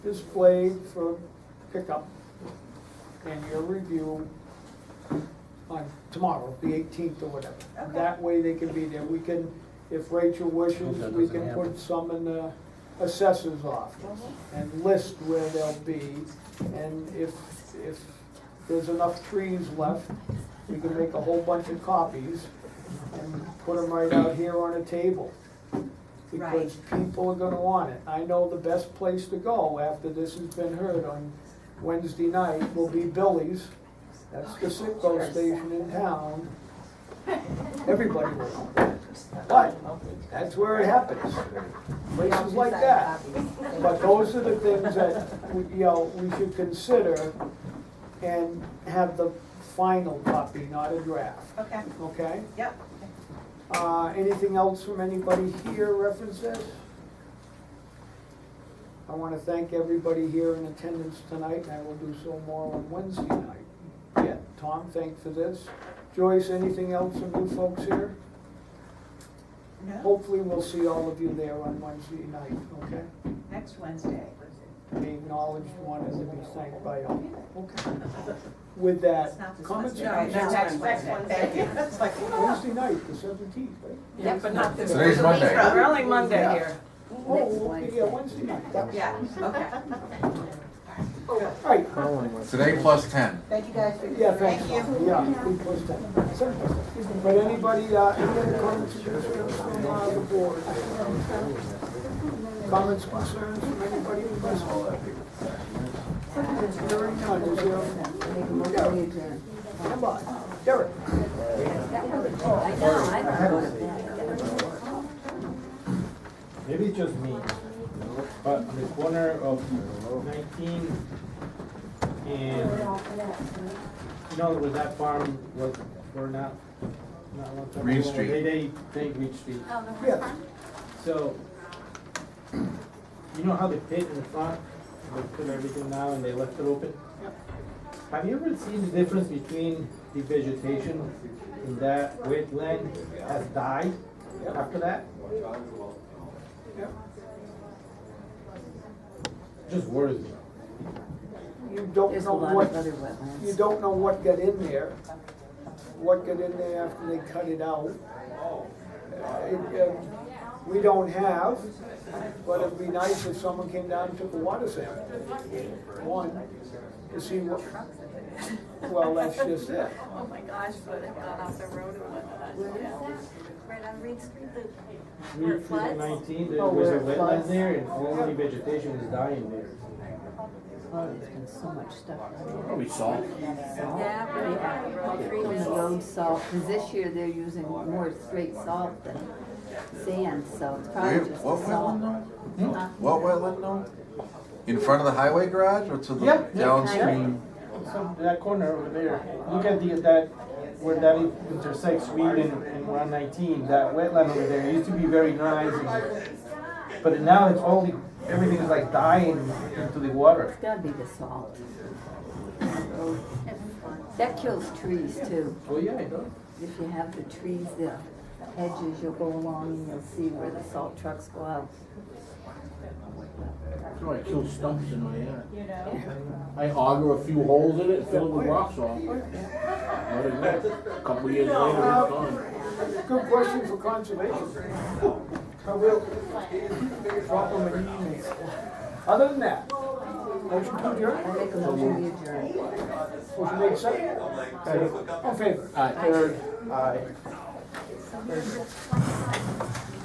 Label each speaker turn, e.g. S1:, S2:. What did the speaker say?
S1: displayed for pickup and your review on tomorrow, the eighteenth or whatever.
S2: Okay.
S1: That way they can be there. We can, if Rachel
S3: Hope
S1: wishes,
S3: that
S1: we
S3: doesn't
S1: can
S3: happen.
S1: put some in the assessor's office and list where they'll be. And if, if there's enough trees left, we can make a whole bunch of copies and put them right out here on a table. Because people are gonna want it. I know the best place to go after this has been heard on Wednesday night will be Billy's. That's the Sitco station in town. Everybody will know. But that's where it happens, places like that. But those are the things that, we- you know, we should consider and have the final copy, not a draft,
S2: Okay,
S1: okay?
S2: yep.
S1: Uh, anything else from anybody here references? I wanna thank everybody here in attendance tonight, and I will do so more on Wednesday night. Yeah, Tom, thanks for this. Joyce, anything else from you folks here?
S2: No,
S1: Hopefully, we'll see all of you there on Wednesday night, okay?
S2: next Wednesday.
S1: Be acknowledged, wanted to be thanked by all. Okay. With that,
S2: It's not this
S1: comments?
S2: Wednesday.
S4: No,
S2: No,
S4: next
S2: next
S4: Wednesday.
S2: Wednesday. It's like,
S1: Wednesday night, the seventeenth, right?
S4: Yeah, but not this.
S3: Today's Monday.
S4: We're only Monday
S1: Yeah.
S4: here.
S1: Oh, okay, yeah, Wednesday night, that was.
S2: Yeah, okay.
S1: All right,
S3: Today plus ten.
S2: Thank you guys for.
S1: Yeah, thanks.
S2: Thank you.
S1: Yeah, we pushed that. Sorry. But anybody, uh, any other comments, or concerns from uh, the board? Comments, concerns from anybody in this hall? Hearing none, is there? Come on, Derek.
S5: I know, I don't go to bed.
S6: Maybe it's just me, but on the corner of nineteen and, you know, where that farm was, or not, not long time
S3: Reed
S6: ago,
S3: Street.
S6: They, they, they Reed Street,
S1: Oh. Yes,
S6: so, you know how they pit in the front, they put everything now and they left it open? Have you ever seen the difference between the vegetation in that wetland has died after that?
S1: Yep.
S6: Just worries me.
S1: you don't
S5: There's a
S1: know
S5: lot of other
S1: what, you
S5: wetlands.
S1: don't know what got in there, what got in there after they cut it out. Uh, it, uh, We don't have, but it'd be nice if someone came down and took a water sample. One, to see what, well, that's just it.
S4: Oh my gosh, but it got off the road and whatnot, yeah.
S7: Right on Reed Street,
S6: Three through nineteen, there
S1: Oh,
S6: was
S1: where
S6: a
S1: it floods.
S6: wetland there and only vegetation is dying there.
S5: Oh, there's been so much stuff.
S3: Probably salt.
S5: Yeah, but From the road salt, because this year they're using more straight salt than sand, so it's
S3: Where,
S5: probably just the
S3: what wetland
S5: salt.
S3: now?
S5: Huh?
S3: What wetland now? In front of the highway garage or to
S6: Yeah,
S3: the
S6: yeah.
S3: downstream?
S6: So that corner over there, look at the, that, where that intersects Reed and, and Route nineteen, that wetland over there, it used to be very nice. and- But now it's only, everything is like dying into the water.
S5: It's gotta be the salt. That kills trees too.
S6: Oh, yeah, it does.
S5: If you have the trees, the hedges, you'll go along and you'll see where the salt trucks go out.
S8: So I kill stumps in my yard. I auger a few holes in it, fill it with rock salt. Let it go. A Couple years later, it's gone.
S1: Good question for conservation. I will drop them an email. Other than that, motion to adjourn?
S5: I make a motion to adjourn.
S1: Motion made second. All in favor?
S8: All right.
S6: Third, aye.